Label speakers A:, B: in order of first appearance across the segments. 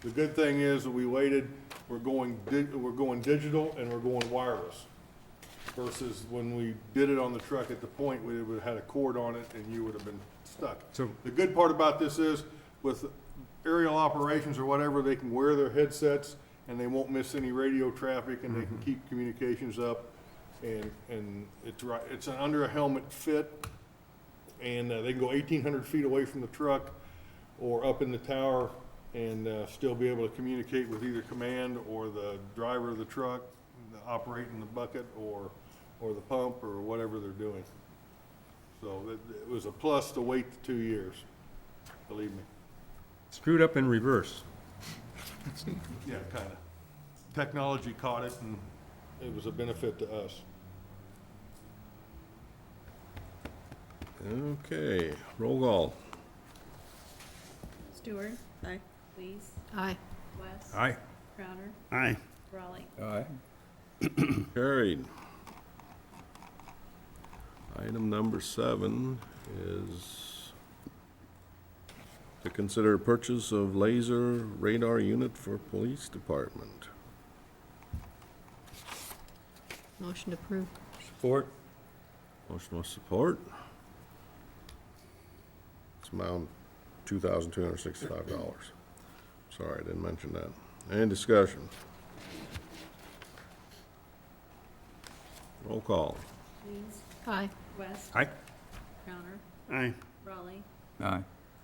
A: The good thing is that we waited, we're going, di- we're going digital and we're going wireless. Versus when we did it on the truck at the point, we would have had a cord on it and you would have been stuck.
B: So-
A: The good part about this is with aerial operations or whatever, they can wear their headsets and they won't miss any radio traffic and they can keep communications up. And, and it's right, it's an under a helmet fit and uh, they can go eighteen hundred feet away from the truck or up in the tower and uh, still be able to communicate with either command or the driver of the truck, the operating the bucket or, or the pump or whatever they're doing. So it, it was a plus to wait the two years, believe me.
B: Screwed up in reverse.
A: Yeah, kinda. Technology caught it and it was a benefit to us.
C: Okay, roll call.
D: Stewart. Aye. Lees.
E: Aye.
D: West.
B: Aye.
D: Crowder.
F: Aye.
D: Raleigh.
B: Aye.
C: Carried. Item number seven is to consider purchase of laser radar unit for police department.
E: Motion to approve.
B: Support.
C: Motion with support. It's amount two thousand two hundred sixty-five dollars. Sorry, I didn't mention that. Any discussion? Roll call.
D: Lees.
E: Aye.
D: West.
B: Aye.
D: Crowder.
F: Aye.
D: Raleigh.
B: Aye.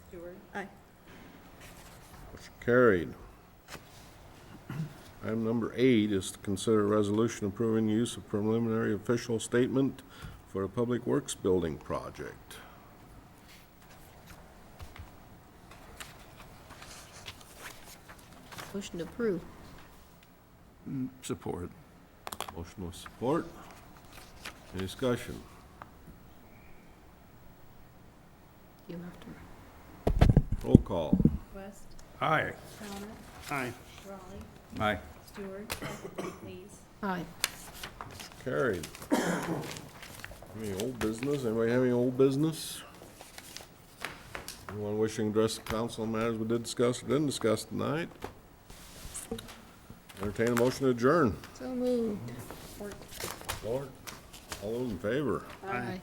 D: Stewart. Aye.
C: Motion carried. Item number eight is to consider a resolution approving use of preliminary official statement for a public works building project.
E: Motion to approve.
F: Support.
C: Motion with support. Any discussion?
E: You have to.
C: Roll call.
D: West.
B: Aye.
D: Crowder.
F: Aye.
D: Raleigh.
B: Aye.
D: Stewart. Lees.
E: Aye.
C: Carried. Any old business? Anybody have any old business? Anyone wishing to address the council on matters we did discuss or didn't discuss tonight? Entertain a motion to adjourn.
E: So moved.
C: Lord. All those in favor?
E: Aye.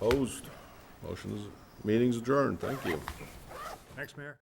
C: Opposed? Motion is, meeting's adjourned. Thank you.
B: Next, Mayor.